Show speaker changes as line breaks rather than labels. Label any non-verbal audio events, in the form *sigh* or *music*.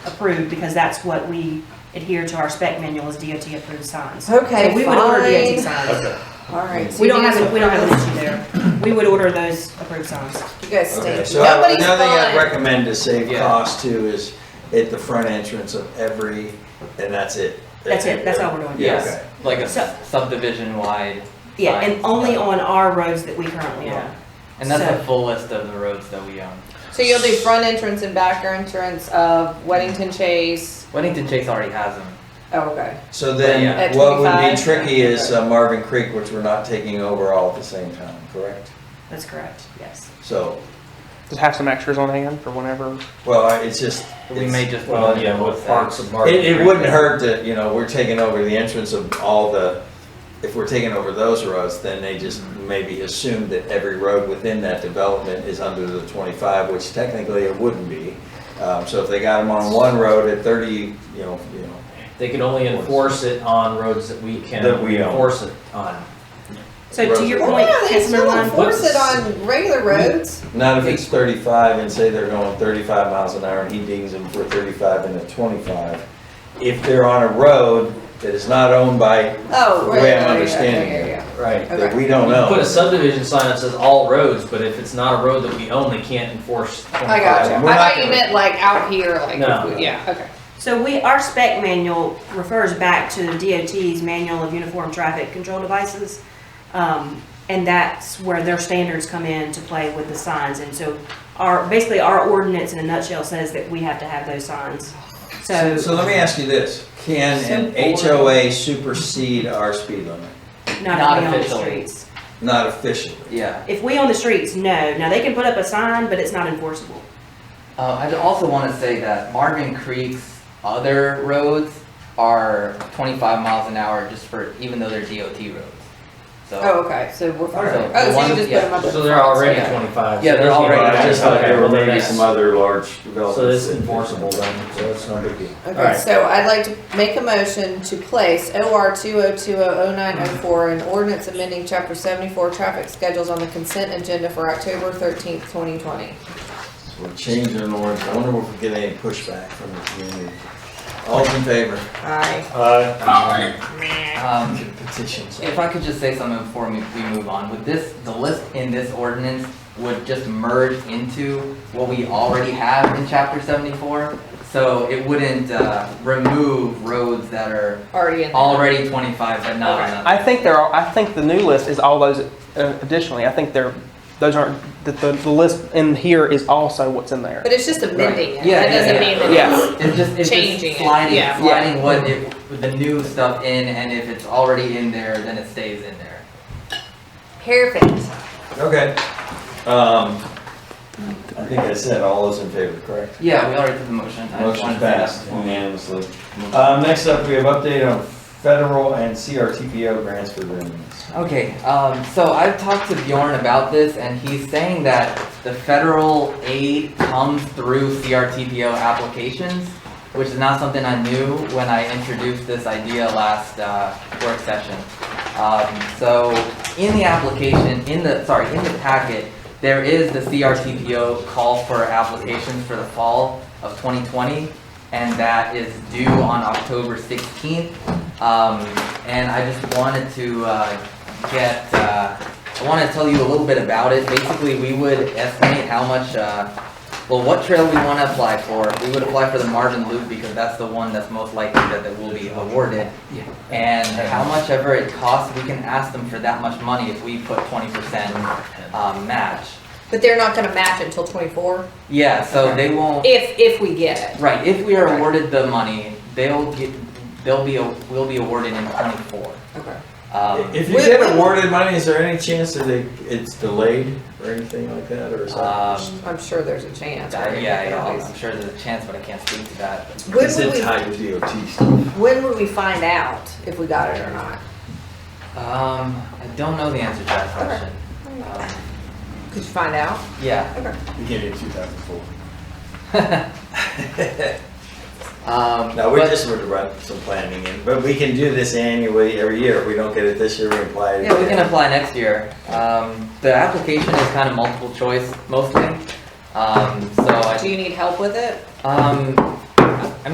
approved, because that's what we adhere to our spec manual is DOT approved signs.
Okay,
So we would order DOT
fine.
signs.
Okay,
All right. so
We don't
you
have,
guys
a- we don't have an
approve
issue there. We would order those approved signs.
this? You guys stay.
okay, so I-
Nobody's
another thing I'd
fine.
recommend to save
Yeah.
cost too is at the front entrance of every, and that's it.
That's it, that's all we're doing.
Yeah,
Yes,
okay.
like a
So-
subdivision wide,
Yeah, and
Signs.
only on our roads that we currently
Yeah.
own.
and that's
So-
the full list of the roads that we own.
So you'll do front entrance and back entrance of Weddington Chase.
Weddington Chase already has them.
Oh, okay.
So
At
then, what would be
25?
tricky is uh, Marvin Creek, which we're not taking over all at the same time, correct?
That's correct, yes.
So,
Just have some extras on hand for whenever.
well, I- it's just.
We
it's-
may just.
Well, yeah, with parts of Market
It, it
Creek.
wouldn't hurt to, you know, we're taking over the entrance of all the, if we're taking over those roads, then they just maybe assume that every road within that development is under the twenty-five, which technically it wouldn't be. Um, so if they got them on one road at thirty, you know, you know,
They could only enforce it on roads that we can
That we own.
enforce it on.
So to your
Roads are-
point,
Oh, Yeah, they
Councilman
still
Lund,
enforce it on regular roads.
not if it's thirty-five and say they're going thirty-five miles an hour and he dings them for thirty-five and a twenty-five. If they're on a road that is not owned by,
Oh,
The
right.
way I'm
yeah, yeah,
understanding
yeah,
it.
yeah,
Right.
yeah.
that
Okay.
we don't
You can
know.
put a subdivision sign that says all roads, but if it's not a road that we own, they can't enforce
I got you.
We're
I
twenty-five.
not
thought you
gonna-
meant like out here, like,
No.
yeah, okay.
So we, our spec manual refers back to DOT's Manual of Uniform Traffic Control Devices. Um, and that's where their standards come in to play with the signs. And so our, basically our ordinance in a nutshell says that we have to have those signs. So,
So let me ask you this, can an HOA supersede our speed limit?
not
Not
if we own the
officially.
streets.
Not officially.
Yeah,
If we own the streets, no. Now, they can put up a sign, but it's not enforceable.
uh, I also wanna say that Marvin Creek's other roads are twenty-five miles an hour just for, even though they're DOT roads.
Oh,
So,
okay, so we're fine.
Alright.
Oh,
The
so you
one-
just put
yeah.
them up.
So
in
they're
front, so
already
Yeah.
twenty-five.
Yeah,
so
they're
there's no-
already-
I just thought there were
Okay, well,
maybe
that's-
some other large developments.
So this is
that-
enforceable then,
So it's no big deal.
Okay,
Alright.
so I'd like to make a motion to place OR two oh two oh oh nine oh four and ordinance amending chapter seventy-four traffic schedules on the consent agenda for October thirteenth, twenty twenty.
So We're changing the ordinance. I wonder if we get any pushback from the community. All in favor?
Aye.
Uh,
Oh.
um,
Petitions.
If I could just say something before we we move on, would this, the list in this ordinance would just merge into what we already have in chapter seventy-four? So it wouldn't, uh, remove roads that are
Already in there.
already twenty-five but not on
I think there are. I think the new list is all those. Uh, additionally, I think there. Those aren't. The, the, the list in here is also what's in there.
But it's just amending it.
Yeah,
That
yeah,
doesn't
yeah.
mean that
Yeah.
it's-
It's just, it's
Changing it,
just sliding,
yeah.
sliding what it, the new stuff in, and if it's already in there, then it stays in there.
Perfect.
Okay. Um, I think I said all those in favor, correct?
Yeah, we already did the motion. I just wanted
Motion
to say that
passed
before.
unanimously. Um, next up, we have update on federal and CRTPO grants for agreements.
Okay, um, so I've talked to Bjorn about this, and he's saying that the federal aid comes through CRTPO applications, which is not something I knew when I introduced this idea last, uh, work session. Um, so, in the application, in the, sorry, in the packet, there is the CRTPO call for applications for the fall of twenty twenty, and that is due on October sixteenth. Um, and I just wanted to, uh, get, uh, I want to tell you a little bit about it. Basically, we would estimate how much, uh, well, what trail we want to apply for. We would apply for the Marvin Loop because that's the one that's most likely that it will be awarded. And how much ever it costs, we can ask them for that much money if we put twenty percent, um, match.
But they're not gonna match until twenty-four,
Yeah, so they won't,
if, if we get it.
right, if we are
Right.
awarded the money, they'll get, they'll be, we'll be awarded in twenty-four.
Okay.
Um,
If you
Wait,
get
wait.
awarded money, is there any chance that it, it's delayed or anything like that, or is that?
um,
I'm sure there's a chance.
Yeah,
right?
yeah, yeah,
Always.
I'm sure there's a chance, but I can't speak to that.
When
Is
would
it
we,
tied to DOT stuff?
when would we find out if we got it or not?
Um, I don't know the answer to that question. Um,
Could you find out?
Yeah. *laughs*
Okay.
Beginning of two thousand four.
Um,
No, we
but-
just were to run some planning in, but we can do this annually, every year. If we don't get it this year, we apply it.
Yeah, we can
again.
apply next year. Um, the application is kind of multiple choice mostly. Um, so
Do
I,
you need help with it?
um,